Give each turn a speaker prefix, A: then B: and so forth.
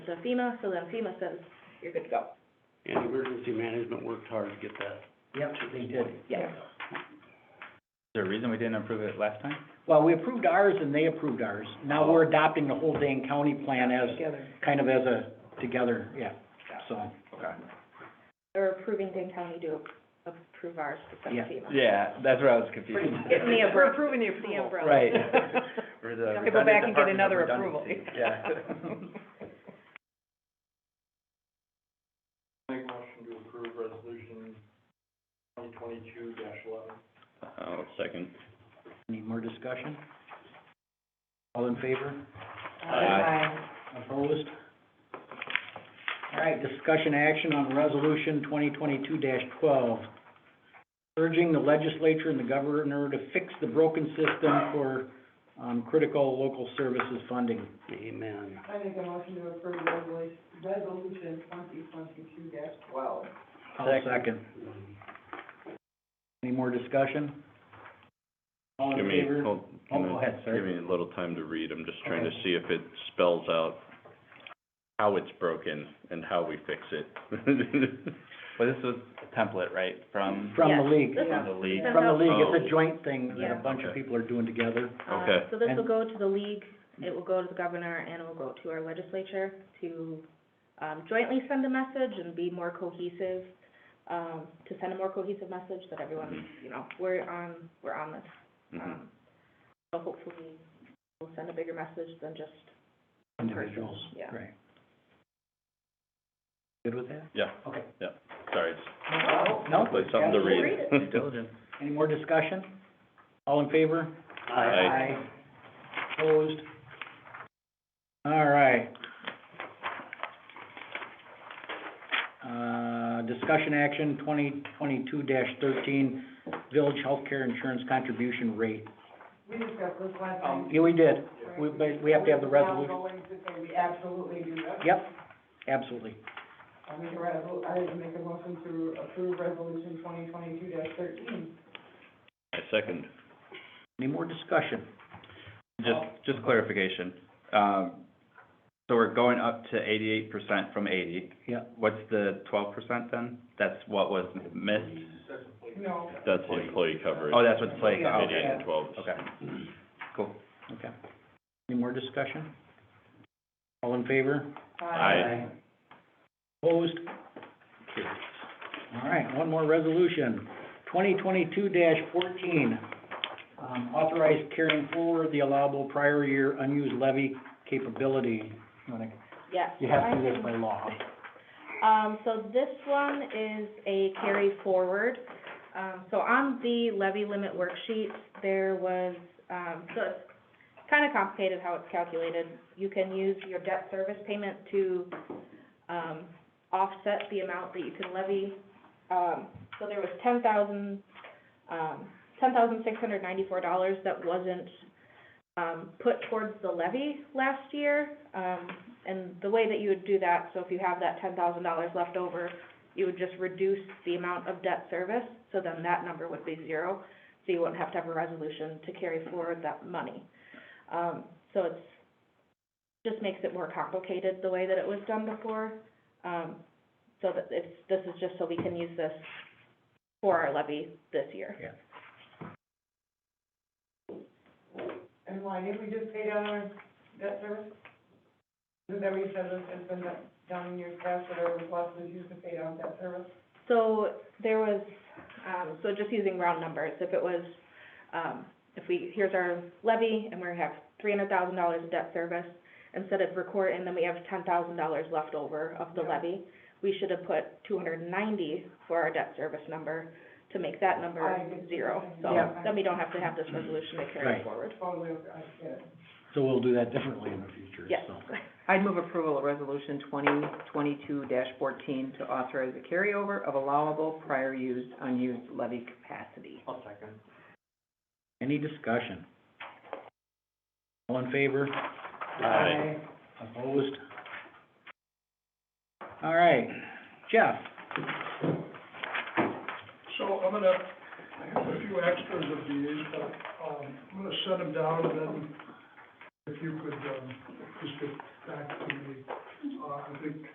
A: to FEMA, so then FEMA says, you're good to go.
B: And emergency management worked hard to get that.
C: Yep, they did.
A: Yeah.
D: Is there a reason we didn't approve it last time?
C: Well, we approved ours and they approved ours. Now we're adopting the whole Dane County plan as,
A: Together.
C: kind of as a, together, yeah, so.
D: Okay.
A: Or approving Dane County to approve ours to send
C: Yeah.
A: FEMA.
D: Yeah, that's where I was confused.
A: It's the umbrella.
E: We're approving the approval.
A: umbrella.
D: Right.
B: Or
E: You have to go back and get another approval.
D: Yeah.
B: Make motion to approve resolution twenty twenty-two eleven.
D: Oh, second.
C: Any more discussion? All in favor?
E: Aye.
C: Opposed? All right, discussion action on resolution twenty twenty-two twelve, urging the legislature and the governor to fix the broken system for, um, critical local services funding.
B: Amen.
F: I make a motion to approve resolution, resolution twenty twenty-two dash twelve.
C: I'll second. Any more discussion? All in favor?
G: hold,
C: Oh,
G: can I-
C: go ahead, sir.
G: Give me a little time to read, I'm just trying to
C: Okay.
G: see if it spells out how it's broken and how we fix it.
D: Well, this was a template, right, from?
C: From the
A: Yeah.
C: league,
A: This
D: From the league.
A: Send
C: from the
A: out-
C: league, it's
G: Oh.
C: a joint thing that
A: Yeah.
C: a bunch of
G: Okay.
C: people are doing together.
A: Uh,
G: Okay.
A: So this will
C: And-
A: go to the league, it will go to the governor, and it will go to our legislature to, um, jointly send a message and be more cohesive, um, to send a more cohesive message that everyone, you know, we're on, we're on this.
C: Mm-hmm.
G: Mhm.
A: Um, So hopefully, we'll send a bigger message than just,
C: Individuals,
A: Yeah.
C: right. Good with that?
G: Yeah,
C: Okay.
G: sorry, it's
C: No?
G: Like something to
A: read.
G: read.
D: Diligent.
C: Any more discussion? All in favor?
G: Aye.
C: Opposed? All right. Uh, discussion action twenty twenty-two thirteen, village healthcare insurance contribution rate. Um,
F: We discussed this last time.
C: Yeah, we did. We, but we have to have the
F: Now
C: resolution.
F: going to say we absolutely do that.
C: Yep, absolutely.
F: I make a resol, I make a motion to approve resolution twenty twenty-two dash thirteen.
G: I second.
C: Any more discussion?
D: Just, just clarification. Um, so we're going up to eighty-eight percent from eighty.
C: Yeah.
D: What's the twelve percent then? That's what was missed?
F: No,
G: That's the employee coverage.
D: Oh, that's what's playing,
F: Yeah.
G: Eighty-eight
D: okay,
G: and twelve.
D: okay. Cool.
C: Okay. Any more discussion? All in favor?
G: Aye.
C: Opposed? All right, one more resolution, twenty twenty-two fourteen. Um, authorize carrying forward the allowable prior year unused levy capability. You wanna-
A: yes.
C: You have to
A: I
C: do this
A: can-
C: by law.
A: Um, so this one is a carry forward. Um, so on the levy limit worksheet, there was, um, so it's kind of complicated how it's calculated. You can use your debt service payment to, um, offset the amount that you can levy. Um, so there was ten thousand, um, ten thousand six hundred ninety-four dollars that wasn't, um, put towards the levy last year. Um, and the way that you would do that, so if you have that ten thousand dollars left over, you would just reduce the amount of debt service, so then that number would be zero. So you wouldn't have to have a resolution to carry forward that money. Um, so it's, just makes it more complicated the way that it was done before. Um, so that it's, this is just so we can use this for our levy this year.
F: and why, didn't we just pay down our debt service? Isn't that what you said, this has been done- done in years past, whatever was left was used to pay down debt service?
A: So there was, um, so just using round numbers, if it was, um, if we, here's our levy and we have three hundred thousand dollars of debt service, instead of record, and then we have ten thousand dollars left over of the
F: Yeah.
A: levy, we should have put two hundred and ninety for our debt service number to make that number
F: I did the
A: zero.
F: same
A: So
F: thing. Yeah.
A: then we don't have to have this resolution to carry
C: Right.
A: forward.
F: Totally, I get it.
C: So we'll do that differently in the future,
A: Yes.
C: so.
E: I'd move approval of resolution twenty twenty-two fourteen to authorize the carryover of allowable prior used unused levy capacity.
B: I'll second.
C: Any discussion? All in favor?
G: Aye.
C: Opposed? All right, Jeff?
H: So I'm gonna, I have a few extras of these, but, um, I'm gonna send them down, and then if you could, um, just back to me. Uh, I think